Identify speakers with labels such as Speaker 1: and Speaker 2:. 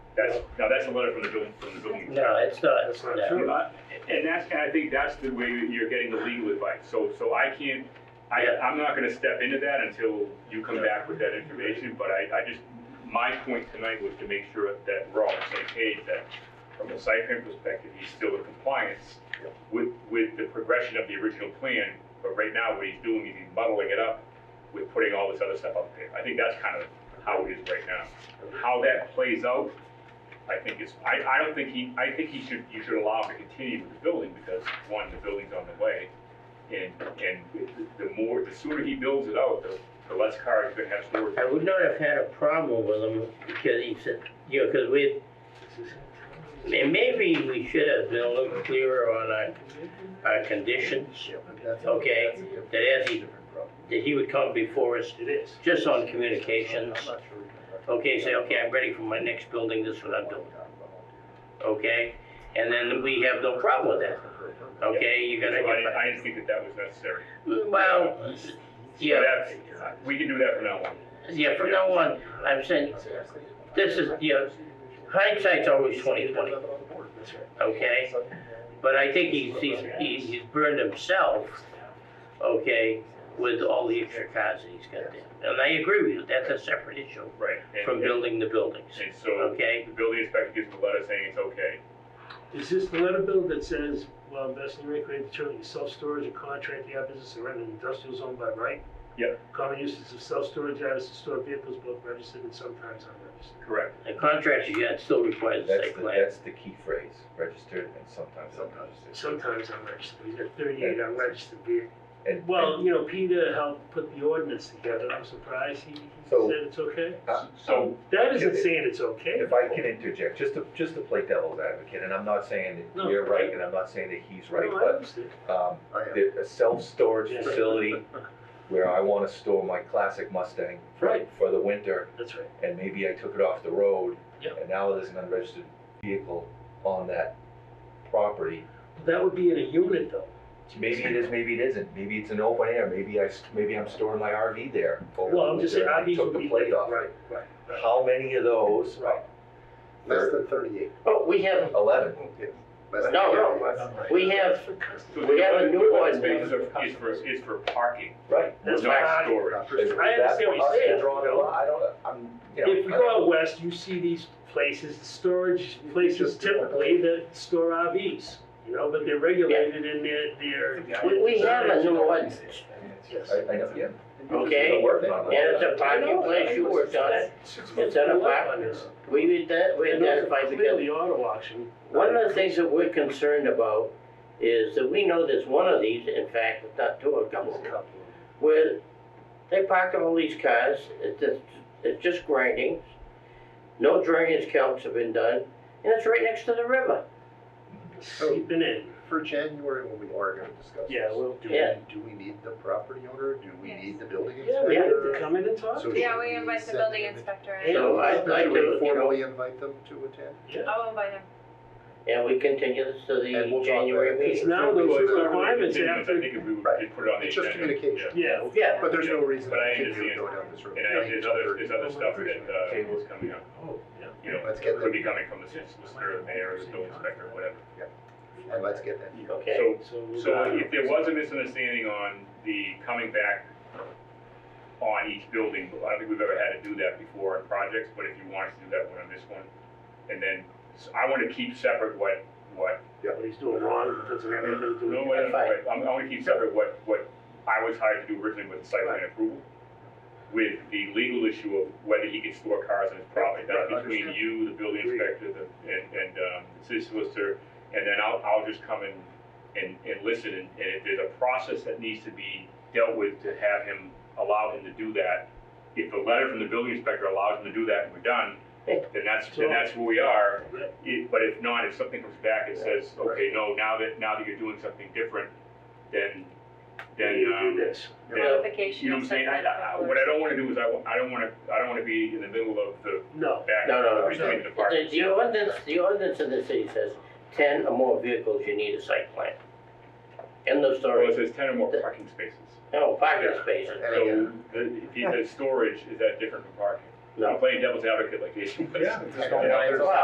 Speaker 1: That's, now that's a letter from the building, from the building.
Speaker 2: No, it's not.
Speaker 3: That's not
Speaker 2: no.
Speaker 3: true.
Speaker 1: Uh, And that's, and I think that's the way that you're getting the legal advice, so, so I can't, I,
Speaker 2: Yeah.
Speaker 1: I'm not gonna step into that until you come back with that information, but I, I just, my point tonight was to make sure that we're all on the same page, that from a site plan perspective, he's still in compliance with, with the progression of the original plan, but right now, what he's doing is he's muddling it up with putting all this other stuff up there. I think that's kind of how it is right now. How that plays out, I think is, I, I don't think he, I think he should, you should allow him to continue with the building because, one, the building's on the way. And, and the more, the sooner he builds it out, the, the less cars he's gonna have stored.
Speaker 2: I would not have had a problem with him because he said, you know, because we, and maybe we should have been a little clearer on our, our conditions, okay? That as he, that he would come before us,
Speaker 3: It is.
Speaker 2: just on communications,
Speaker 3: I'm not sure we can-
Speaker 2: okay, say, okay, I'm ready for my next building, this is what I'm doing, okay? And then we have no problem with that, okay? You're
Speaker 1: So I
Speaker 2: gonna
Speaker 1: didn't,
Speaker 2: get,
Speaker 1: I didn't think that that was necessary.
Speaker 2: well, yeah.
Speaker 1: So that's- We can do that from now on.
Speaker 2: Yeah, from now on, I'm saying, this is, you know, hindsight's always twenty twenty, okay? But I think he's, he's, he's he's burned himself, okay, with all the extra cars that he's got there. And I agree with you, that's a separate issue
Speaker 1: Right. and-
Speaker 2: from building the buildings,
Speaker 1: And so,
Speaker 2: okay?
Speaker 1: the building inspector gives him a letter saying it's okay.
Speaker 3: Is this the letter bill that says, well, investing in recreating facility, self-storage or contracting out business or rent an industrial zone by right?
Speaker 1: Yep.
Speaker 3: Common uses of self-storage items to store vehicles both registered and sometimes unregistered.
Speaker 1: Correct.
Speaker 2: The contracts you got still requires a
Speaker 4: That's
Speaker 2: site
Speaker 4: the,
Speaker 2: plan.
Speaker 4: that's the key phrase, registered and sometimes unregistered.
Speaker 3: Sometimes unregistered, we got thirty-eight unregistered vehicles.
Speaker 4: And-
Speaker 3: Well,
Speaker 4: and
Speaker 3: you know, Peter helped put the ordinance together, I'm surprised he he
Speaker 4: So- Uh,
Speaker 3: said it's okay.
Speaker 1: So,
Speaker 3: That isn't
Speaker 4: If-
Speaker 3: saying it's okay.
Speaker 4: If I can interject, just to, just to play devil's advocate, and I'm not saying that
Speaker 3: No.
Speaker 4: you're right, and I'm not saying that he's
Speaker 3: No, I
Speaker 4: right, but,
Speaker 3: understand.
Speaker 4: um,
Speaker 3: I am.
Speaker 4: there- a self-storage
Speaker 3: Yeah.
Speaker 4: facility where I wanna store my classic Mustang for,
Speaker 3: Right.
Speaker 4: for the winter,
Speaker 3: That's right.
Speaker 4: and maybe I took it off the road,
Speaker 3: Yep.
Speaker 4: and now there's an unregistered vehicle on that property,
Speaker 3: That would be in a unit though.
Speaker 4: Maybe it is, maybe it isn't. Maybe it's an open air. Maybe I, s- maybe I'm storing my RV there. over
Speaker 3: Well, I'm
Speaker 4: the
Speaker 3: just
Speaker 4: winter
Speaker 3: saying, RVs
Speaker 4: and I Took
Speaker 3: would
Speaker 4: the
Speaker 3: be.
Speaker 4: plate off.
Speaker 3: Right, right, right.
Speaker 4: How many of those?
Speaker 3: Right.
Speaker 5: Less than thirty-eight.
Speaker 2: Oh, we have,
Speaker 4: Eleven.
Speaker 5: Less than
Speaker 2: No, no.
Speaker 5: 38.
Speaker 2: we have,
Speaker 1: so
Speaker 2: We
Speaker 1: the
Speaker 2: have a
Speaker 1: other-
Speaker 2: new
Speaker 1: the other
Speaker 2: one.
Speaker 1: Spaces are, is for, is for parking,
Speaker 4: Right.
Speaker 1: not
Speaker 3: That's right.
Speaker 1: storage.
Speaker 4: Is that
Speaker 3: I understand what
Speaker 4: for us
Speaker 3: you're
Speaker 4: to
Speaker 3: saying.
Speaker 4: draw the line? I don't, I'm, you know.
Speaker 3: If you
Speaker 4: I
Speaker 3: go
Speaker 4: don't-
Speaker 3: out west, you see these places, storage places typically that store RVs, you know, but they're regulated in their, their.
Speaker 2: we, we have a new ordinance,
Speaker 3: Yes.
Speaker 4: I, I know, yeah.
Speaker 2: okay?
Speaker 4: We're working on
Speaker 2: And
Speaker 4: it.
Speaker 2: it's a parking place, you worked on it, it's an apartment, we, did that- we
Speaker 3: And those are
Speaker 2: identified the.
Speaker 3: Clearly auto auction.
Speaker 2: One of the things that we're concerned about is that we know there's one of these, in fact, if not two, a couple, of them, where they park all these cars, it's just, it's just grinding. No drainage counts have been done, and it's right next to the river.
Speaker 3: Sleeping in,
Speaker 5: For January, when we are gonna discuss this.
Speaker 3: yeah, we'll
Speaker 5: Do
Speaker 3: do.
Speaker 2: Yeah.
Speaker 5: we, do we need the property owner? Do we need the building
Speaker 3: Yeah, we have to
Speaker 5: inspector?
Speaker 3: come in and talk.
Speaker 5: So should
Speaker 6: Yeah, we invite the
Speaker 5: send
Speaker 6: building
Speaker 5: them in?
Speaker 6: inspector in.
Speaker 2: So I'd like
Speaker 5: Should we
Speaker 2: to, you know,
Speaker 5: formally invite them to attend?
Speaker 6: I'll invite him.
Speaker 2: and we continue this to
Speaker 5: And
Speaker 2: the
Speaker 5: we'll talk
Speaker 2: January
Speaker 5: about it.
Speaker 2: meeting.
Speaker 3: Now
Speaker 1: Well,
Speaker 3: those
Speaker 1: it's not really
Speaker 3: requirements
Speaker 1: continuous. I
Speaker 3: after,
Speaker 1: think if we would
Speaker 5: Right.
Speaker 1: just put it on the
Speaker 5: It's just
Speaker 1: agenda,
Speaker 5: communication.
Speaker 3: yeah,
Speaker 2: Yeah,
Speaker 5: But there's no reason
Speaker 1: But I
Speaker 5: to continue
Speaker 1: understand.
Speaker 5: to go down this road.
Speaker 1: yeah. And I, there's other, there's other stuff that, uh,
Speaker 4: Tables
Speaker 1: is coming up,
Speaker 3: yeah.
Speaker 1: you know,
Speaker 5: Let's get
Speaker 1: could
Speaker 5: them,
Speaker 1: be coming from the solicitor, the mayor, the building inspector, whatever.
Speaker 5: and let's get them.
Speaker 2: okay,
Speaker 1: So,
Speaker 3: So we'll
Speaker 1: so
Speaker 3: go.
Speaker 1: if there was a misunderstanding on the coming back on each building, I don't think we've ever had to do that before on projects, but if you want us to do that one on this one, and then, so I wanna keep separate what, what
Speaker 3: What he's doing wrong, doesn't have anything to do with
Speaker 1: No, wait,
Speaker 2: That's fine.
Speaker 1: wait, I'm, I'm gonna keep separate what, what I was hired to do originally with the site plan approval, with the legal issue of whether he can store cars on his property, that's
Speaker 5: Right, I
Speaker 1: between
Speaker 5: understand.
Speaker 1: you, the building
Speaker 3: Agreed.
Speaker 1: inspector, the, and, and, um, the city solicitor, and then I'll, I'll just come in and, and listen, and and if there's a process that needs to be dealt with to have him, allow him to do that, if the letter from the building inspector allows him to do that and we're done, then that's, then that's where we are, it, but if not, if something comes back and says, okay, no, now that, now that you're doing something different, then,
Speaker 3: Then
Speaker 1: then,
Speaker 3: you do
Speaker 1: um,
Speaker 3: this.
Speaker 1: then,
Speaker 6: Notification.
Speaker 1: you know what I'm saying? I, I, what I don't wanna do is I, wa- I don't wanna, I don't wanna be in the middle of the
Speaker 3: No,
Speaker 1: back.
Speaker 2: No, no, no.
Speaker 1: between the
Speaker 2: the,
Speaker 1: departments.
Speaker 2: the ordinance, the ordinance in the city says ten or more vehicles, you need a site plan. End of
Speaker 1: Well, it
Speaker 2: story,
Speaker 1: says ten or more parking spaces,
Speaker 2: no parking spaces,
Speaker 5: And
Speaker 1: so,
Speaker 5: again,
Speaker 1: the- if he says storage, is that different from parking?
Speaker 2: no.
Speaker 1: I'm playing devil's advocate like Jason was.
Speaker 4: Yeah.
Speaker 5: I don't know if there's-